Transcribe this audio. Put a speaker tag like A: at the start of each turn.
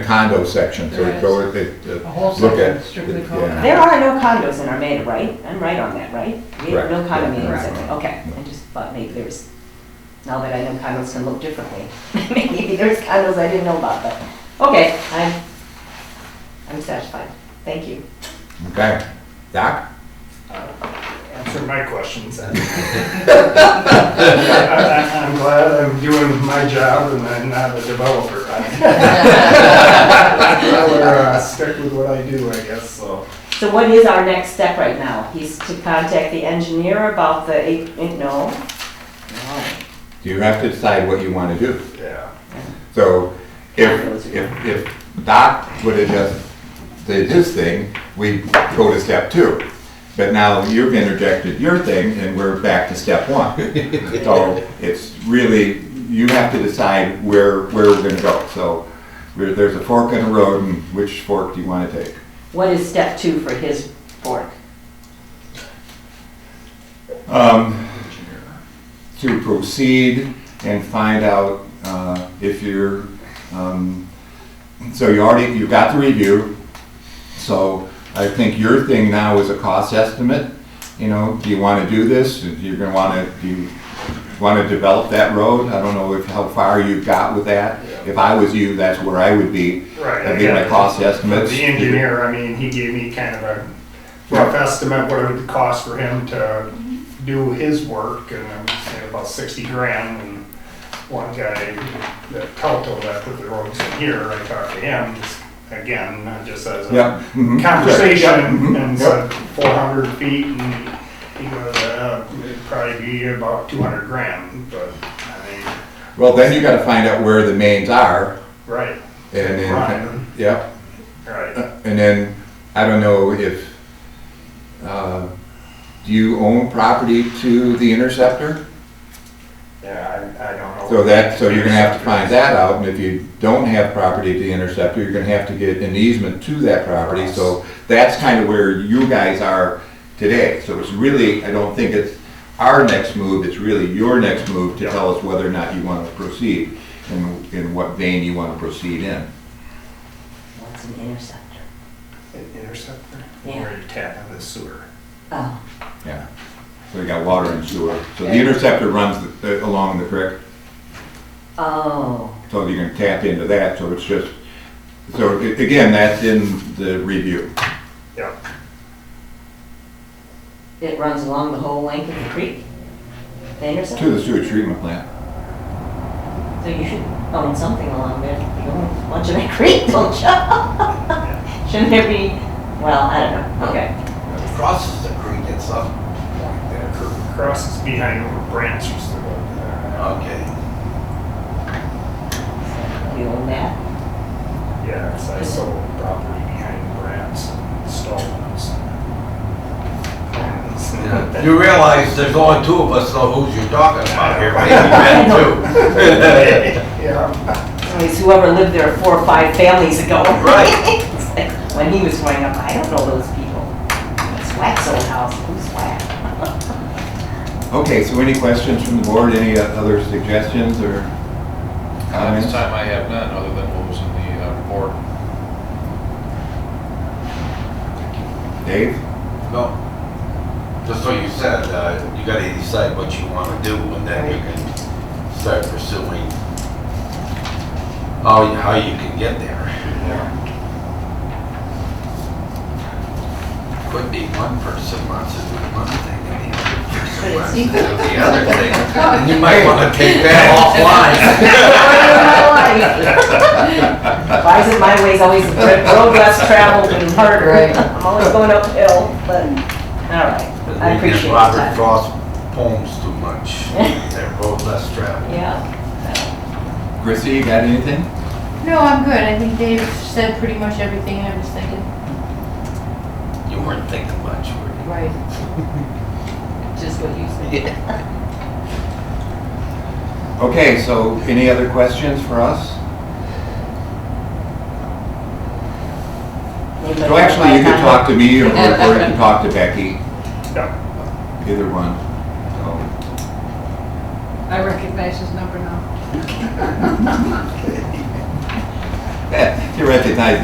A: condo section, so
B: There
A: it go, it, it- uh,
B: A whole
A: look
B: section
A: at.
B: strictly
A: yeah.
B: condo.
C: There are no condos in Armada, right? I'm right on that, right? We have no
A: Correct.
C: condominiums in
A: Correct.
C: there, okay. I just thought maybe there's, now that I know condos can look differently, maybe there's condos I didn't know about, but, okay, I'm, I'm satisfied. Thank you.
A: Okay, Doc?
D: Answer my questions. then. I- I- I'm glad I'm doing my job and I'm not a developer. I'd rather uh, stick with what I do, I guess, so.
C: So what is our next step right now? He's to contact the engineer about the, eight- eh, no? No.
A: Do you have to decide what you want to do?
D: Yeah.
A: So if, if, if Doc would have just did his thing, we go to step two. But now you've interjected your thing and we're back to step one. So it's really, you have to decide where, where we're gonna go. So there- there's a fork in the road and which fork do you wanna take?
C: What is step two for his fork?
A: Um, to proceed and find out, uh, if you're, um, so you already, you got the review. So I think your thing now is a cost estimate, you know, do you wanna do this? You're gonna wanna, do you wanna develop that road? I don't know if, how far you've got with that. If I was you, that's where I would be.
D: Right.
A: That'd be my cost
D: But
A: estimates.
D: The engineer, I mean, he gave me kind of a rough estimate what it would cost for him to do his work, and I'm saying about sixty grand. And One guy, that Telto that put the roads in here, I talked to him, just again, not just as
A: Yeah.
D: a
A: mhm, sure. Yeah,
D: conversation,
A: mhm, yep.
D: and said four hundred feet, and he goes, uh, it'd probably be about two hundred grand, but, I mean,
A: Well, then you gotta find out where the mains are
D: right,
A: and
D: Right.
A: then, yep.
D: right.
A: And then, I don't know if, uh, do you own property to the Interceptor?
D: Yeah, I, I don't know.
A: So that, so you're gonna have to find that out, and if you don't have property to the Interceptor, you're gonna have to get an easement to that property, so that's kind of where you guys are today. So it's really, I don't think it's our next move, it's really your next move to tell us whether or not you wanna proceed, and in what vein you wanna proceed in.
C: What's an interceptor?
D: An Interceptor?
C: Yeah.
D: Where you tap into the sewer.
C: Oh,
A: Yeah. So you got water and sewer, so the Interceptor runs the- along the creek.
C: oh.
A: So you can tap into that, so it's just, so a- again, that's in the review.
D: Yep.
C: It runs along the whole length of the creek? The
A: To
C: intersection?
A: the sewage treatment plant.
C: So you should own something along there. You own a bunch of that creek, don't you? Shouldn't there be, well, I don't know, okay.
E: It crosses the creek at some point there.
D: Crosses behind where Brant's used to go over there.
E: Okay.
C: So You own that?
D: Yeah, it's like sold property behind Brant's and Stallman's.
E: Yeah. You realize there's only two of us know who's you're talking about here, maybe Ben too.
D: Yeah,
C: So It's whoever lived there four or five families ago.
E: Right.
C: It's like, When he was growing up, I don't know those people. It's Wack's old house, who's Wack?
A: Okay, so any questions from the board, any uh, other suggestions or
F: At Uh,
A: comments?
F: this time, I have none, other than what was in the uh,
A: Dave?
F: report.
E: No. Just what you said, uh, you gotta decide what you wanna do and then you can start pursuing how, you- how you can get there.
D: yeah.
E: Could be one person wants to do one thing and the other person
C: But
E: wants
C: it's
E: to do
C: equal.
E: the other thing. And you might wanna take that offline.
C: Why is it my way's always the road less traveled and harder? I'm always going uphill, but, all right, I
E: We
C: appreciate
E: give
C: your
E: Robert
C: time.
E: Frost poems too much. They're both less traveled.
C: Yeah.
A: Chrissy, you got anything?
G: No, I'm good. I think Dave said pretty much everything I was thinking.
E: You weren't thinking much, were
G: Right.
C: Just what you said.
E: you?
A: Okay, so any other questions for us?
C: Anybody
A: So actually, you
C: have
A: could
C: my
A: talk to me or or you could talk to Becky,
D: Yeah,
A: either one. So,
H: I recognize his number now.
A: You recognize